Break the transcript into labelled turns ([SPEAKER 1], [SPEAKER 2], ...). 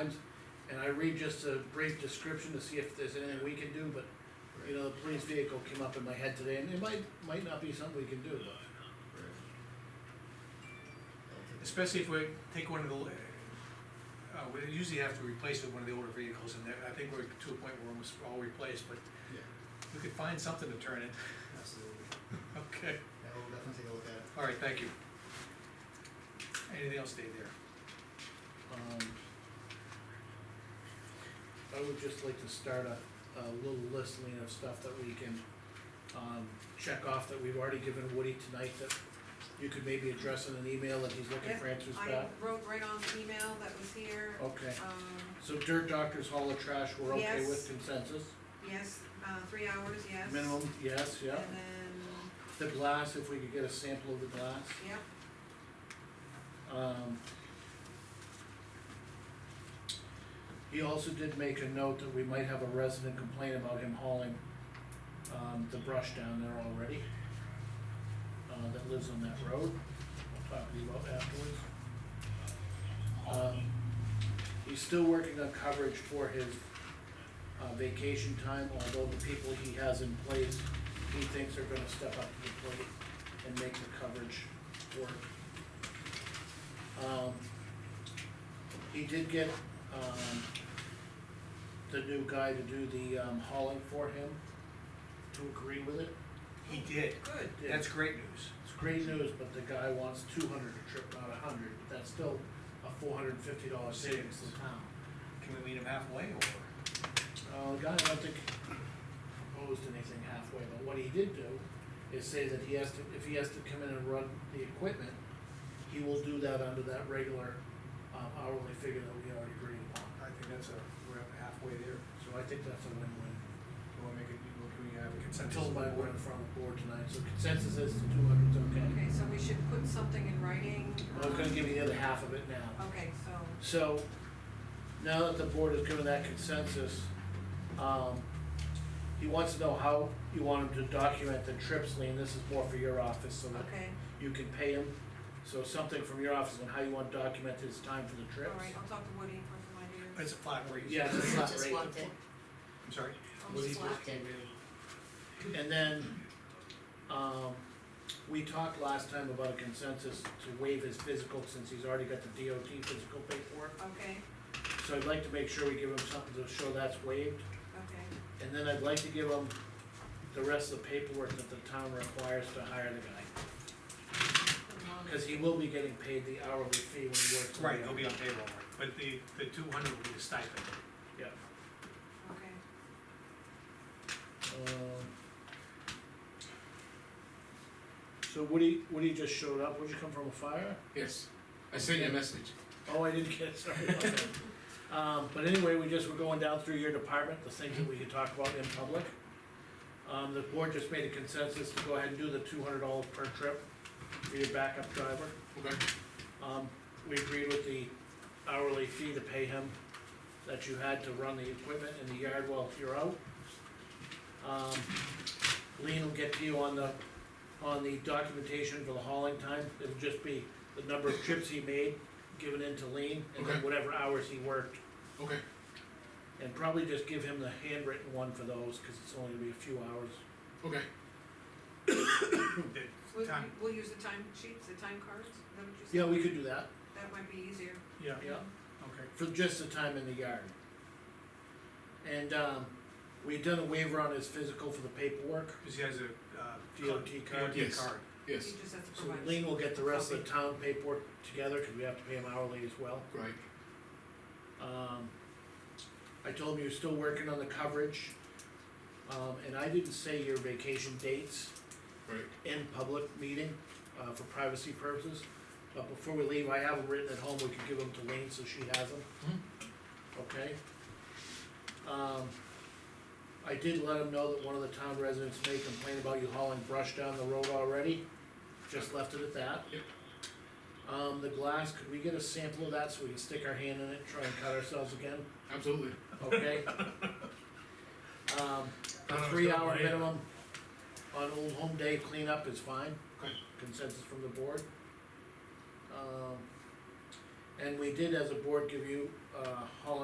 [SPEAKER 1] times, and I read just a brief description to see if there's anything we can do, but, you know, the police vehicle came up in my head today, and it might, might not be something we can do, but.
[SPEAKER 2] Especially if we take one of the, uh, we usually have to replace with one of the older vehicles, and I think we're to a point where almost all replaced, but
[SPEAKER 3] Yeah,
[SPEAKER 2] we could find something to turn it.
[SPEAKER 3] absolutely.
[SPEAKER 2] Okay,
[SPEAKER 3] Yeah, we'll definitely take a look at it.
[SPEAKER 2] all right, thank you. Anything else, Dave, there?
[SPEAKER 1] um, I would just like to start a, a little list, Lean, of stuff that we can, um, check off that we've already given Woody tonight that you could maybe address in an email that he's looking for answers
[SPEAKER 4] I
[SPEAKER 1] back.
[SPEAKER 4] wrote right on the email that was here,
[SPEAKER 1] Okay,
[SPEAKER 4] um,
[SPEAKER 1] so Dirt Doctors Hall of Trash, we're okay
[SPEAKER 4] Yes.
[SPEAKER 1] with consensus?
[SPEAKER 4] yes, uh, three hours, yes.
[SPEAKER 1] Minimum, yes, yeah.
[SPEAKER 4] And then,
[SPEAKER 1] The glass, if we could get a sample of the glass.
[SPEAKER 4] yep,
[SPEAKER 1] Um, He also did make a note that we might have a resident complain about him hauling, um, the brush down there already. Uh, that lives on that road, I'll talk to you about afterwards. Um, He's still working on coverage for his, uh, vacation time, although the people he has in place, he thinks are gonna step up to the plate and make the coverage work. Um, he did get, um, the new guy to do the, um, hauling for him, to agree with it.
[SPEAKER 2] He did,
[SPEAKER 4] good,
[SPEAKER 2] that's great news.
[SPEAKER 1] It's great news, but the guy wants two hundred a trip, not a hundred, but that's still a four hundred and fifty dollar savings to the town.
[SPEAKER 2] Can we meet him halfway, or?
[SPEAKER 1] Uh, the guy, I don't think proposed anything halfway, but what he did do is say that he has to, if he has to come in and run the equipment, he will do that under that regular, um, hourly figure that we already agreed upon.
[SPEAKER 2] I think that's a, we're at halfway there.
[SPEAKER 1] So I think that's a win-win.
[SPEAKER 2] Do we make it, can we have a consensus?
[SPEAKER 1] Told by word in front of the board tonight, so consensus is the two hundred's okay.
[SPEAKER 4] okay, so we should put something in writing,
[SPEAKER 1] I was gonna
[SPEAKER 4] um,
[SPEAKER 1] give you the other half of it now.
[SPEAKER 4] okay, so,
[SPEAKER 1] So, now that the board has given that consensus, um, he wants to know how you want him to document the trips, Lean, this is more for your office, so that
[SPEAKER 4] okay,
[SPEAKER 1] you can pay him. So something from your office on how you want to document his time for the
[SPEAKER 4] all
[SPEAKER 1] trips.
[SPEAKER 4] right, I'll talk to Woody for some
[SPEAKER 2] It's
[SPEAKER 4] ideas.
[SPEAKER 2] a flat rate.
[SPEAKER 1] Yeah, it's not
[SPEAKER 5] Just
[SPEAKER 1] rate.
[SPEAKER 5] walked in.
[SPEAKER 2] I'm sorry?
[SPEAKER 4] I'll
[SPEAKER 2] Was he
[SPEAKER 4] just laugh.
[SPEAKER 2] supposed to be-
[SPEAKER 1] And then, um, we talked last time about a consensus to waive his physical since he's already got the DOT physical paperwork.
[SPEAKER 4] Okay,
[SPEAKER 1] So I'd like to make sure we give him something to show that's waived,
[SPEAKER 4] okay,
[SPEAKER 1] and then I'd like to give him the rest of the paperwork that the town requires to hire the guy.
[SPEAKER 4] Um,
[SPEAKER 1] Cause he will be getting paid the hourly fee when he works. on the
[SPEAKER 2] Right, he'll be on
[SPEAKER 1] hour.
[SPEAKER 2] payroll, but the, the two hundred will be the stipend.
[SPEAKER 1] Yeah.
[SPEAKER 4] okay,
[SPEAKER 1] Um, So Woody, Woody just showed up, would you come from a fire?
[SPEAKER 6] Yes, I sent you a message.
[SPEAKER 1] Oh, I didn't get it, sorry about that. Um, but anyway, we just were going down through your department, the things that we could talk about in public. Um, the board just made a consensus to go ahead and do the two hundred dollars per trip for your backup driver.
[SPEAKER 6] Okay.
[SPEAKER 1] Um, we agreed with the hourly fee to pay him that you had to run the equipment in the yard while you're out. Um, Lean will get to you on the, on the documentation for the hauling time, it'll just be the number of trips he made, given in to Lean, and then
[SPEAKER 6] Okay.
[SPEAKER 1] whatever hours he worked.
[SPEAKER 6] Okay.
[SPEAKER 1] And probably just give him the handwritten one for those, cause it's only gonna be a few hours.
[SPEAKER 6] Okay.
[SPEAKER 2] The
[SPEAKER 4] we'll,
[SPEAKER 2] time-
[SPEAKER 4] we'll use the time sheets, the time cards, is that what you said?
[SPEAKER 1] Yeah, we could do that,
[SPEAKER 4] That might be easier.
[SPEAKER 2] Yeah,
[SPEAKER 1] yeah.
[SPEAKER 2] okay.
[SPEAKER 1] for just the time in the yard. And, um, we've done a waiver on his physical for the paperwork,
[SPEAKER 2] Cause he has a, uh.
[SPEAKER 1] DOT card.
[SPEAKER 2] DOT
[SPEAKER 6] Yes.
[SPEAKER 2] card.
[SPEAKER 6] Yes,
[SPEAKER 4] He just has to
[SPEAKER 1] so
[SPEAKER 4] provide.
[SPEAKER 1] Lean will get the rest of the town paperwork together, cause we have to pay him hourly as well.
[SPEAKER 6] right.
[SPEAKER 1] Um, I told him you're still working on the coverage, um, and I didn't say your vacation dates
[SPEAKER 6] Right.
[SPEAKER 1] in public meeting, uh, for privacy purposes. But before we leave, I have them written at home, we can give them to Lean so she has them. Okay? Um, I did let him know that one of the town residents may complain about you hauling brush down the road already, just left it at that.
[SPEAKER 6] Yep.
[SPEAKER 1] Um, the glass, could we get a sample of that so we can stick our hand in it, try and cut ourselves again,
[SPEAKER 6] Absolutely.
[SPEAKER 1] okay? Um, a three hour minimum on Old Home Day cleanup is fine
[SPEAKER 6] Okay.
[SPEAKER 1] consensus from the board. Um, And we did, as a board, give you, uh, Holland